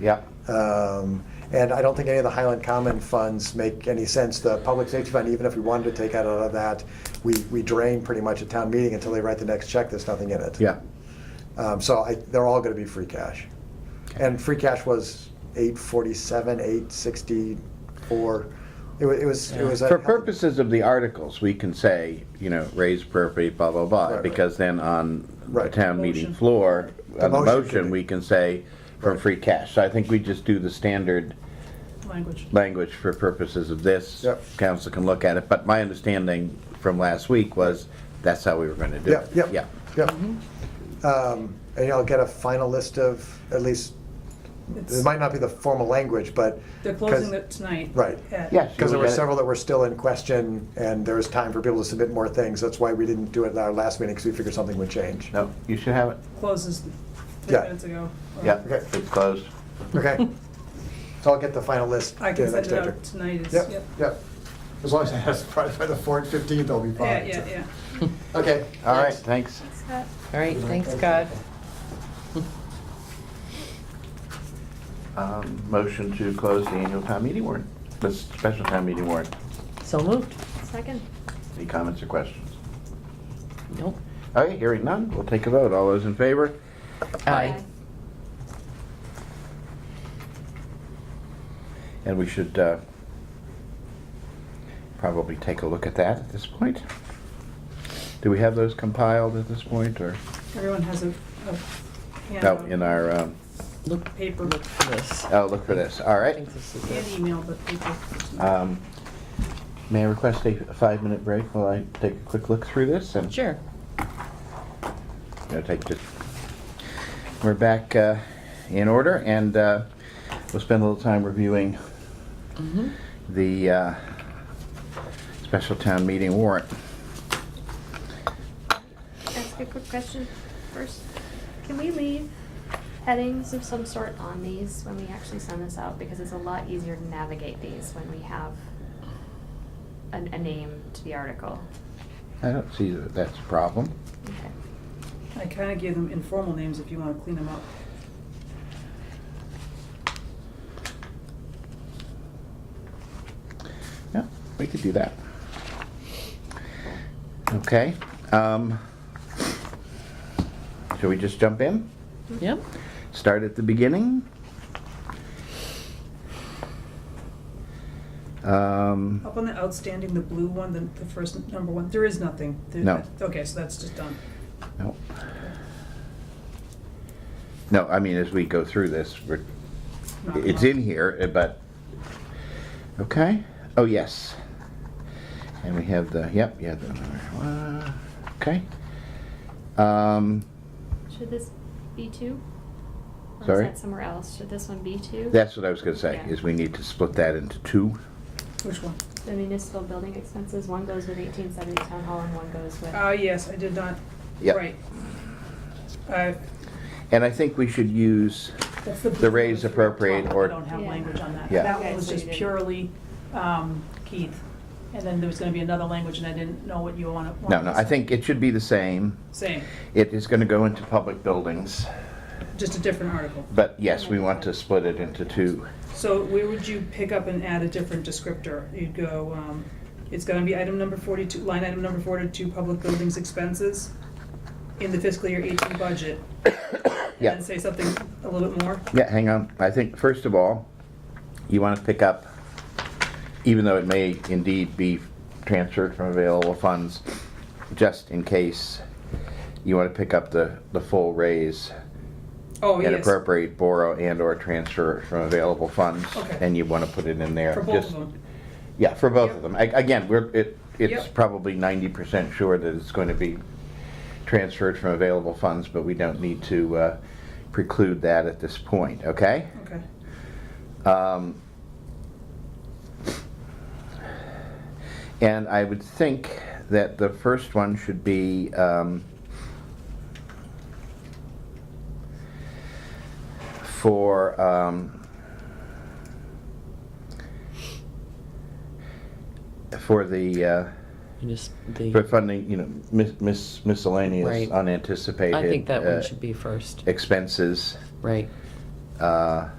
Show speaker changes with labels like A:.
A: Yeah,
B: Um, And I don't think any of the Highland Common funds make any sense. The public safety fund, even if we wanted to take out of that, we, we drain pretty much at town meeting until they write the next check, there's nothing in it.
A: yeah.
B: Um, So I, they're all gonna be free cash. And free cash was eight forty-seven, eight sixty-four. It was, it was, it was. a-
A: For purposes of the articles, we can say, you know, raise property, blah, blah,
B: Right,
A: blah,
B: right.
A: because then on the
B: Right.
A: town meeting floor,
B: The
A: on the
B: motion could
A: motion,
B: be-
A: we can say from free cash. So I think we just do the standard
C: language.
A: language for purposes of this.
B: Yep.
A: Council can look at it, but my understanding from last week was that's how we were gonna do
B: Yeah,
A: it.
B: yeah. Yep. Um, And I'll get a final list of, at least,
C: It's-
B: it might not be the formal language, but.
C: They're
B: 'cause-
C: closing it tonight.
B: Right.
C: at-
A: Yes.
B: Because there
A: You
B: were
A: get it.
B: several that were still in question, and there was time for people to submit more things. That's why we didn't do it at our last meeting, because we figured something would change.
A: No, you should have it.
C: Closes
B: Yeah.
C: ten minutes ago. Um, or-
A: Yeah,
B: Okay.
A: it's closed.
B: Okay. So I'll get the final list.
C: I
B: to
C: can
B: the
C: send
B: next
C: it
B: day.
C: out tonight, it's,
B: Yep,
C: yep.
B: yep. As long as it has, probably by the 4th, 15th, I'll be
C: Yeah,
B: fine.
C: yeah, yeah.
B: Okay.
A: All right, thanks.
D: All right, thanks, Scott.
A: Um, Motion to close the annual town meeting warrant, the special town meeting warrant.
D: So moved.
E: Second.
A: Any comments or questions?
D: Nope.
A: Okay, hearing none, we'll take a vote. All those in favor?
D: Aye.
A: And we should uh, probably take a look at that at this point. Do we have those compiled at this point, or?
C: Everyone has a, a
A: No,
C: handout.
A: in our, um,
D: Look,
C: Paper.
D: look for this. I
A: oh, look for this, all right.
D: think this is
C: And
D: it.
C: email, but paper. it's not-
A: Um, May I request a five-minute break while I take a quick look through this? and-
D: Sure.
A: Gonna take just, we're back uh, in order, and uh, we'll spend a little time reviewing
D: Mhm.
A: the uh, special town meeting warrant.
E: Ask a quick question first. Can we leave headings of some sort on these when we actually send this out? Because it's a lot easier to navigate these when we have a, a name to the article.
A: I don't see that that's a problem.
E: Okay.
C: I kinda gave them informal names if you wanna clean them up.
A: Yeah, we could do that. Okay. um, Shall we just jump in?
D: Yep.
A: Start at the beginning? Um,
C: Up on the outstanding, the blue one, the, the first number one, there is nothing. There-
A: No.
C: Okay, so that's just done.
A: No. No, I mean, as we go through this, we're,
C: Knock 'em
A: it's
C: off.
A: in here, uh, but, okay, oh, yes. And we have the, yep, yeah, the, uh, okay. Um,
E: Should this be two? Or
A: Sorry?
E: is that somewhere else? Should this one be two?
A: that's what I was gonna say,
E: Yeah.
A: is we need to split that into two.
C: Which one?
E: The municipal building expenses, one goes with eighteen seventy town hall and one goes with.
C: Ah, yes, I did not,
A: Yep.
C: right. Uh,
A: And I think we should use,
C: That's the.
A: The raise appropriate or-
C: I don't have
E: Yeah.
C: language on that.
A: Yeah.
C: That
E: Okay,
C: one was
E: so you
C: just
E: didn't-
C: purely um, Keith. And then there was gonna be another language and I didn't know what you wanna- wanted.
A: no, no, I think it should be the same.
C: Same,
A: It is gonna go into public buildings,
C: just a different article.
A: but yes, we want to split it into two.
C: So where would you pick up and add a different descriptor? You'd go, um, it's gonna be item number forty-two, line item number forty-two, public buildings expenses in the fiscal year eighteen budget.
A: Yeah.
C: And then say something a little bit more.
A: Yeah, hang on. I think, first of all, you want to pick up, even though it may indeed be transferred from available funds, just in case, you want to pick up the, the full raise
C: Oh,
A: and
C: yes,
A: appropriate borrow and/or transfer from available funds.
C: Okay.
A: And you want to put it in there.
C: for both
A: just-
C: of them.
A: Yeah, for both
C: Yep.
A: of them. A- Again, we're, it, it's
C: Yep.
A: probably ninety percent sure that it's going to be transferred from available funds, but we don't need to uh, preclude that at this point, okay?
C: Okay,
A: Um, And I would think that the first one should be, um, for, um, for the, uh,
D: You Just
A: for
D: the,
A: funding, you know, mis- mis- miscellaneous
D: Right.
A: unanticipated.
D: I think that
A: uh,
D: one should be first.
A: Expenses,
D: Right.
A: uh,